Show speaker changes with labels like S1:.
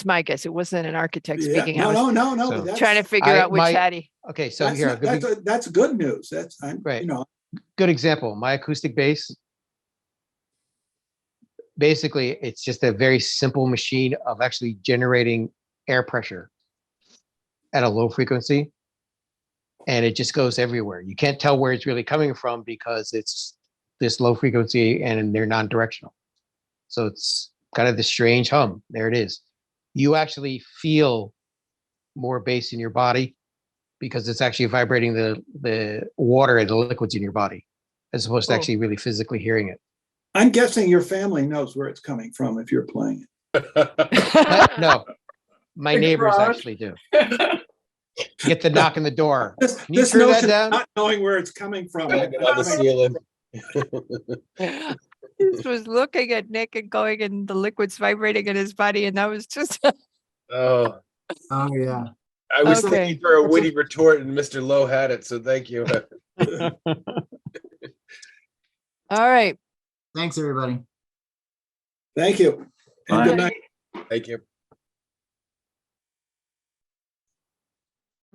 S1: my guess. It wasn't an architect
S2: Yeah.
S1: speaking. I
S2: No,
S1: was
S2: no, no, no. but
S3: So-
S2: that's-
S1: trying to figure
S3: I-
S1: out which
S3: my-
S1: Hattie.
S3: Okay, so
S2: That's,
S3: here, a
S2: not- that's,
S3: good,
S2: a- that's good news. That's, I'm,
S3: Right.
S2: you know,
S3: good example, my acoustic bass. Basically, it's just a very simple machine of actually generating air pressure at a low frequency. And it just goes everywhere. You can't tell where it's really coming from because it's this low frequency and they're non-directional. So it's kind of this strange hum. There it is. You actually feel more bass in your body because it's actually vibrating the the water and the liquids in your body as opposed to
S1: Cool.
S3: actually really physically hearing it.
S2: I'm guessing your family knows where it's coming from if you're playing it.
S3: My- no, my
S4: The
S3: neighbors
S4: garage.
S3: actually do. Get the knock on the door.
S2: This,
S3: you
S2: this
S3: turn that
S2: notion
S3: down?
S2: of not knowing where it's coming from.
S5: Banging on the ceiling.
S1: I just was looking at Nick and going and the liquids vibrating in his body and that was just,
S5: Oh,
S4: Oh, yeah.
S5: I was
S1: Okay.
S5: looking for a witty retort and Mr. Lowe had it, so thank you.
S1: all right.
S4: Thanks, everybody.
S2: Thank you. And
S6: Bye.
S2: good night.
S5: Thank you.